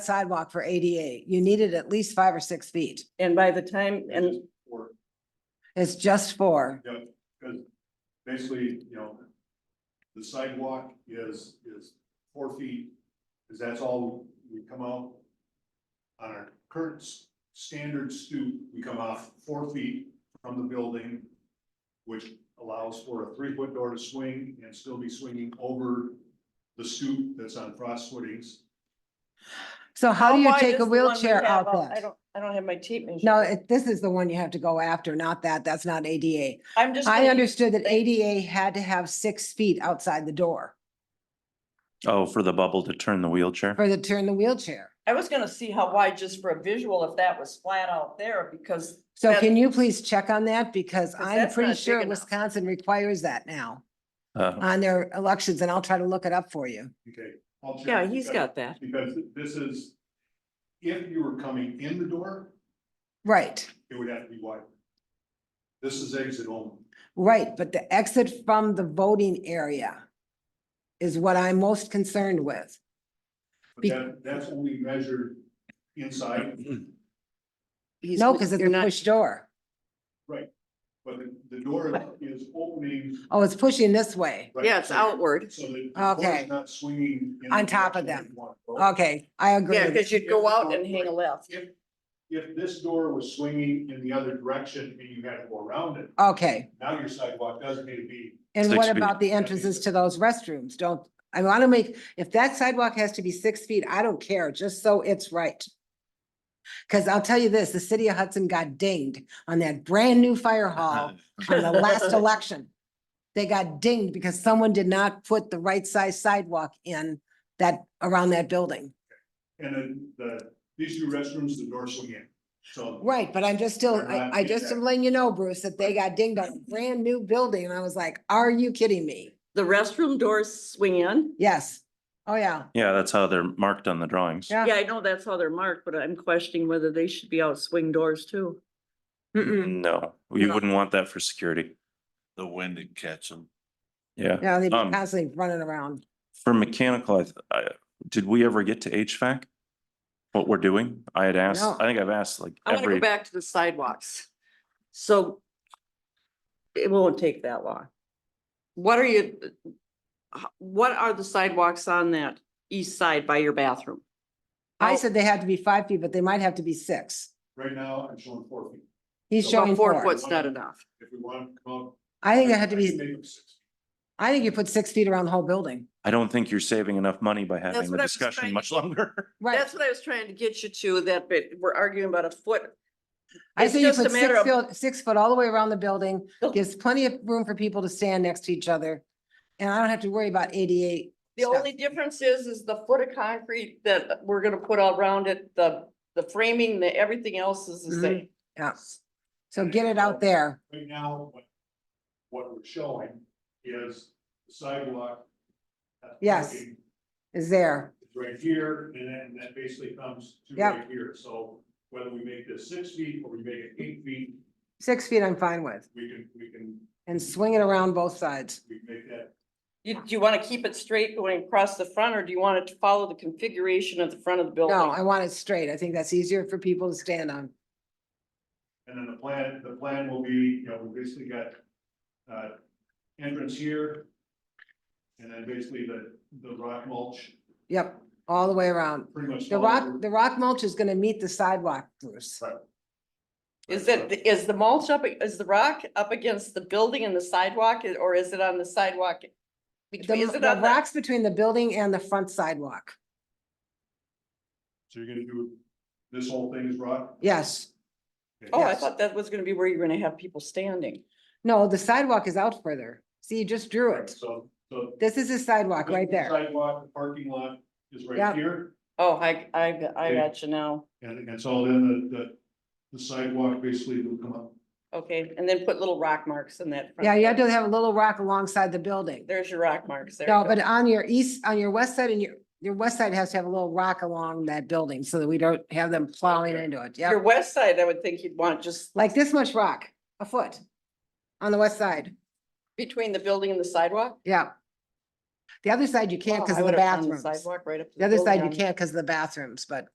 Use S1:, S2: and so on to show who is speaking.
S1: sidewalk for ADA, you needed at least five or six feet.
S2: And by the time, and
S3: Just for-
S1: It's just four.
S3: yeah, because basically, you know, the sidewalk is, is four feet, because that's all we come out. On our current s- standard stoop, we come off four feet from the building, which allows for a three-foot door to swing and still be swinging over the stoop that's on frost footings.
S1: So how do you
S2: wide is
S1: take a
S2: the one we
S1: wheelchair
S2: have
S1: out
S2: up? I
S1: that?
S2: don't, I don't have my tape measure.
S1: No, it- this is the one you have to go after, not that. That's not ADA.
S2: I'm just.
S1: I
S2: gonna-
S1: understood that
S2: Thank-
S1: ADA had to have six feet outside the door
S4: Oh, for the bubble to turn the wheelchair?
S1: for the turn the wheelchair.
S2: I was gonna see how wide, just for a visual, if that was flat out there, because.
S1: So
S2: that-
S1: can you please check on that? Because
S2: 'Cause
S1: I'm
S2: that's
S1: pretty
S2: not big
S1: sure
S2: enough. Oh.
S1: Wisconsin requires that now
S4: Uh,
S1: on their elections and I'll try to look it up for you.
S3: Okay. I'll check.
S2: Yeah, he's got that.
S3: Because this is, if you were coming in the door,
S1: Right,
S3: it would have to be wider. This is exit only.
S1: right. But the exit from the voting area is what I'm most concerned with.
S3: But
S1: Be-
S3: that, that's only measured inside,
S5: um,
S1: No, because it's a push door.
S3: but the, the door is opening
S1: Oh, it's pushing this way.
S3: right
S5: Yeah, it's
S3: so-
S5: outward.
S3: So that the door
S1: Okay.
S3: is not swinging. in the
S1: On top of
S3: direction
S1: them.
S3: you want to go.
S1: Okay, I agree.
S2: Yeah, because you'd go out and hang a left.
S3: If, if this door was swinging in the other direction and you had to go around it,
S1: Okay,
S3: now your sidewalk doesn't need to be.
S1: and
S4: Six
S1: what
S4: feet.
S1: about the entrances to those restrooms? Don't, I want to make, if that sidewalk has to be six feet, I don't care, just so it's right. Because I'll tell you this, the city of Hudson got dinged on that brand new fire hall
S4: Uh-huh.
S1: on the last election. They got dinged because someone did not put the right size sidewalk in that, around that building.
S3: And then the, these new restrooms, the door swing in, so.
S1: Right, but I'm just still,
S3: They're
S1: I,
S3: not
S1: I just
S3: exact.
S1: am letting you know, Bruce, that they got dinged on a brand new building and I was like, are you kidding me?
S5: The restroom doors swing in?
S1: Yes. Oh, yeah.
S4: yeah, that's how they're marked on the drawings.
S1: Yeah.
S5: Yeah, I know that's how they're marked, but I'm questioning whether they should be out swing doors too.
S1: Mm-mm.
S4: No, you
S1: No.
S4: wouldn't want that for security.
S6: the wind and catch them.
S4: Yeah.
S1: Yeah, they've been
S4: Um,
S1: constantly running around.
S4: For mechanical, I, th- I, did we ever get to HVAC? What we're doing? I had asked,
S1: No.
S4: I think I've asked like
S5: I want to go
S4: every,
S5: back to the sidewalks. So it won't take that long. What are you, h- what are the sidewalks on that east side by your bathroom? Oh,
S1: I
S5: I'll-
S1: said they had to be five feet, but they might have to be six.
S3: Right now, I'm showing four feet.
S1: He's
S3: About
S1: showing
S5: About four
S1: four.
S5: foot's not enough.
S3: If we want to come out.
S1: I think it had to
S3: can
S1: be,
S3: make them six.
S1: I think you put six feet around the whole building.
S4: I don't think you're saving enough money by having
S5: what
S4: the
S5: I was
S4: discussion
S5: trying
S4: much
S5: to-
S4: longer.
S1: Right.
S5: That's what I was trying to get you to, that bit, we're arguing about a foot.
S1: I
S5: It's
S1: say you
S5: just a
S1: put
S5: matter
S1: six Oh.
S5: of-
S1: foot, six foot all the way around the building,
S5: Built-
S1: gives plenty of room for people to stand next to each other. And I don't have to worry about ADA.
S5: The
S1: stuff.
S5: only difference is, is the foot of concrete that we're gonna put around it, the, the framing, the, everything else is
S1: Mm-hmm.
S5: the same.
S1: Yeah. So get it out there.
S3: Right now, what, what we're showing is the sidewalk. that's
S1: Yes.
S3: parking
S1: Is there.
S3: is Right here, and then that basically comes to
S1: Yep.
S3: right here, so whether we make this six feet or we make it eight feet,
S1: Six feet I'm fine with
S3: we can, we can,
S1: and swing it around both sides.
S3: we can make that.
S5: You, do you wanna keep it straight going across the front, or do you want it to follow the configuration of the front of the building?
S1: No, I want it straight. I think that's easier for people to stand on.
S3: And then the plan, the plan will be, you know, we basically got, uh, entrance here. And then basically the, the rock mulch,
S1: Yep, all the way around.
S3: pretty much.
S1: The
S3: all
S1: rock,
S5: Oh.
S3: over.
S1: the rock mulch is gonna meet the sidewalk, Bruce.
S5: Is it, is the mulch up, is the rock up against the building and the sidewalk, or is it on the sidewalk?
S1: The,
S5: Between- Is it
S1: the
S5: on the,
S1: rocks between the building and the front sidewalk.
S3: So you're gonna do, this whole thing is rock?
S1: Yes.
S5: oh, I
S1: yes.
S5: thought that was gonna be where you're gonna have people standing.
S1: No, the sidewalk is out further. See, you just drew
S3: Right,
S1: it.
S3: So, so.
S1: This is a sidewalk right
S3: the
S1: there.
S3: Sidewalk, the parking lot is
S1: Yep.
S3: right here,
S5: Oh, I, I, I
S3: Okay.
S5: got you now.
S3: and, and so then the, the, the sidewalk basically will come up.
S5: Okay, and then put little rock marks in that. front
S1: Yeah, you
S5: part.
S1: have to have a little rock alongside the building.
S5: There's your rock marks there.
S1: No, but on your east, on your west side and your, your west side has to have a little rock along that building so that we don't have them plowing
S3: Okay.
S1: into it.
S5: Your
S1: Yeah,
S5: west side, I would think you'd want just
S1: like this much rock, a foot on the west side.
S5: between the building and the sidewalk.
S1: Yeah. The other side you can't
S5: Wow,
S1: because
S5: I
S1: of the
S5: would've found
S1: bathrooms.
S5: Sidewalk right up. to
S1: The other
S5: building
S1: side you
S5: on-
S1: can't because of the bathrooms, but